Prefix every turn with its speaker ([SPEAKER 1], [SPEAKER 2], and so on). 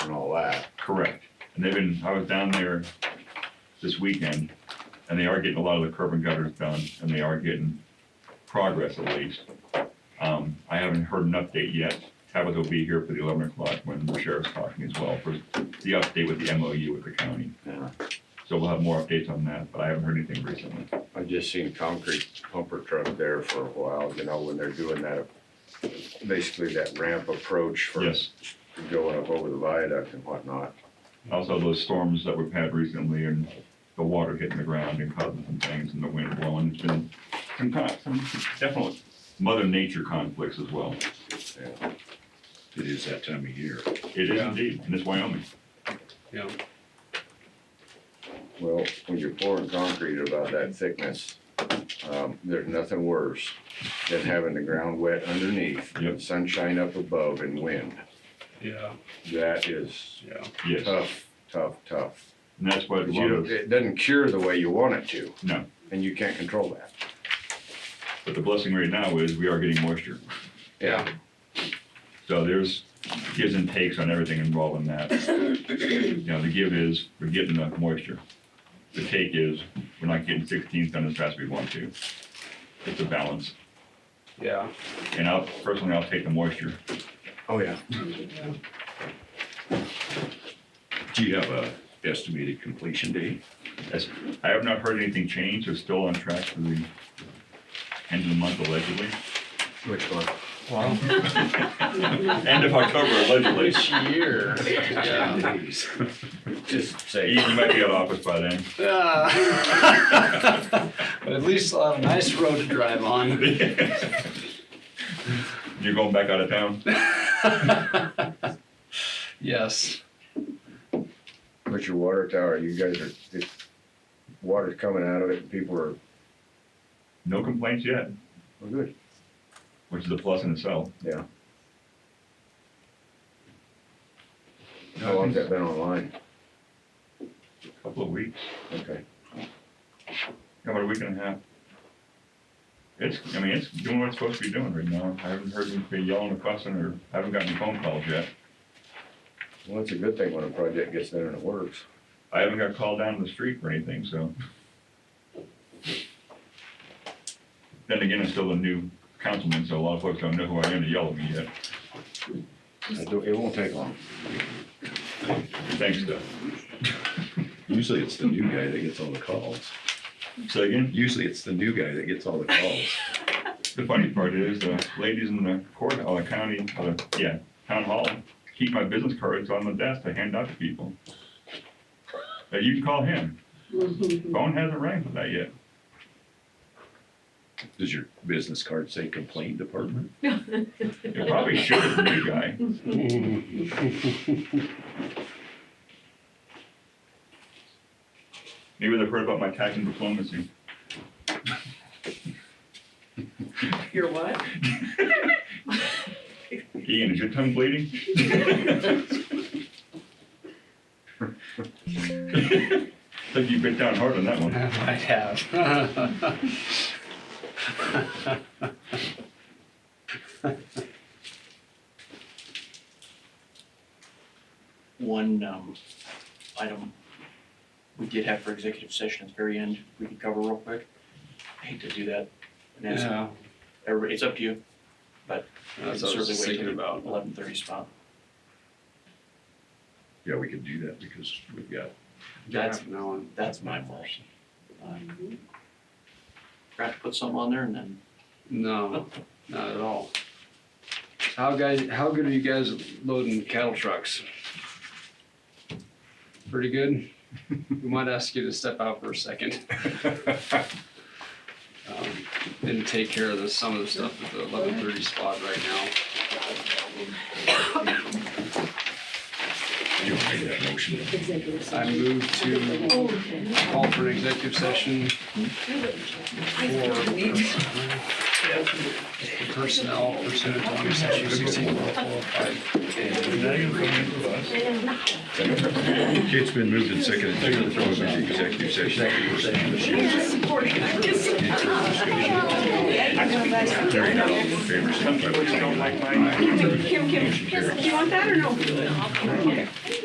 [SPEAKER 1] Correct. And they've been, I was down there this weekend, and they are getting a lot of the curb and gutters done, and they are getting progress at least. Um, I haven't heard an update yet. Tabitha will be here for the eleven o'clock when the sheriff's talking as well for the update with the MOU with the county.
[SPEAKER 2] Yeah,
[SPEAKER 1] So we'll have more updates on that, but I haven't heard anything recently.
[SPEAKER 2] I just seen concrete pumper truck there for a while, you know, when they're doing that, basically that ramp approach for
[SPEAKER 1] Yes.
[SPEAKER 2] going up over the viaduct and whatnot.
[SPEAKER 1] Also, those storms that we've had recently and the water hitting the ground and causing some things and the wind blowing, it's been some kind, some definite mother nature conflicts as well.
[SPEAKER 2] Yeah.
[SPEAKER 3] It is that time of year.
[SPEAKER 1] It is
[SPEAKER 4] Yeah.
[SPEAKER 1] indeed, and it's Wyoming.
[SPEAKER 4] Yeah,
[SPEAKER 2] Well, when you're pouring concrete about that thickness, um, there's nothing worse than having the ground wet underneath,
[SPEAKER 1] Yep.
[SPEAKER 2] sunshine up above and wind.
[SPEAKER 4] yeah,
[SPEAKER 2] That is
[SPEAKER 4] yeah.
[SPEAKER 1] Yes, and
[SPEAKER 2] tough, tough, tough.
[SPEAKER 1] that's what, a
[SPEAKER 2] But
[SPEAKER 1] lot
[SPEAKER 2] Uh, you
[SPEAKER 1] of-
[SPEAKER 2] don't, it doesn't cure the way you want it to.
[SPEAKER 1] No.
[SPEAKER 2] And you can't control that.
[SPEAKER 1] but the blessing right now is we are getting moisture.
[SPEAKER 4] Yeah.
[SPEAKER 1] So there's gives and takes on everything involved in that. You know, the give is we're getting enough moisture. The take is we're not getting sixteenths done as fast as we want to. It's a balance.
[SPEAKER 4] Yeah,
[SPEAKER 1] And I'll, personally, I'll take the moisture.
[SPEAKER 2] Oh, yeah.
[SPEAKER 3] Do you have a estimated completion date?
[SPEAKER 1] That's- I have not heard anything change, so it's still on track for the end of the month allegedly.
[SPEAKER 2] Which one?
[SPEAKER 1] End of October allegedly.
[SPEAKER 4] year. Yeah.
[SPEAKER 3] Days.
[SPEAKER 2] Just
[SPEAKER 1] You
[SPEAKER 2] say,
[SPEAKER 1] you might be out of office by then.
[SPEAKER 4] Ah. But at least I'll have a nice road to drive on.
[SPEAKER 1] You're going back out of town?
[SPEAKER 4] Yes,
[SPEAKER 2] put your water tower, you guys are, it, water's coming out of it and people are,
[SPEAKER 1] No complaints yet,
[SPEAKER 2] well, good.
[SPEAKER 1] which is a plus in itself.
[SPEAKER 2] How long's that been online?
[SPEAKER 1] A Couple of weeks,
[SPEAKER 2] Okay.
[SPEAKER 1] about a week and a half. It's, I mean, it's doing what it's supposed to be doing right now. I haven't heard anybody yelling or fussing or I haven't gotten any phone calls yet.
[SPEAKER 2] Well, that's a good thing when a project gets there and it works.
[SPEAKER 1] I haven't got called down the street for anything, so. Then again, I'm still a new councilman, so a lot of folks don't know who I am to yell at me yet.
[SPEAKER 2] I do- It won't take long.
[SPEAKER 1] Thanks, Doug.
[SPEAKER 3] Usually it's the new guy that gets all the calls.
[SPEAKER 1] So again,
[SPEAKER 3] Usually it's the new guy that gets all the calls.
[SPEAKER 1] the funny part is, the ladies in the court, or the county, or the, yeah, town hall, keep my business cards on the desk to hand out to people. Uh, you can call him. Phone hasn't rang for that yet.
[SPEAKER 3] Does your business card say complaint department?
[SPEAKER 1] It probably should, the new guy. Maybe they've heard about my tax and diplomacy.
[SPEAKER 5] Your what?
[SPEAKER 1] Ian, is your tongue bleeding? Think you bit down hard on that one.
[SPEAKER 4] I have.
[SPEAKER 6] one um, item we did have for executive session at the very end, we could cover real quick. I hate to do that. And it's,
[SPEAKER 4] Yeah,
[SPEAKER 6] everybody, it's up to you,
[SPEAKER 4] that's what I was just thinking about.
[SPEAKER 6] eleven thirty spot.
[SPEAKER 3] Yeah, we could do that because we've got,
[SPEAKER 6] That's-
[SPEAKER 4] Half an hour.
[SPEAKER 6] That's my fault. Um, Forgot to put something on there and then
[SPEAKER 4] No, not at all. How guys, how good are you guys at loading cattle trucks? Pretty good? We might ask you to step out for a second. Um, And take care of the, some of the stuff at the eleven thirty spot right now.
[SPEAKER 3] you don't make that motion.
[SPEAKER 5] Executive
[SPEAKER 4] I
[SPEAKER 5] session.
[SPEAKER 4] move to
[SPEAKER 5] Oh, okay.
[SPEAKER 4] call for an executive session for personnel pursuant to one section sixteen four four five.
[SPEAKER 3] It's been moved and seconded to throw it into executive session. Any further discussion? Hearing none, all in favor, signify by saying aye.
[SPEAKER 5] Kim, Kim, Kim, do you want that or no? Okay.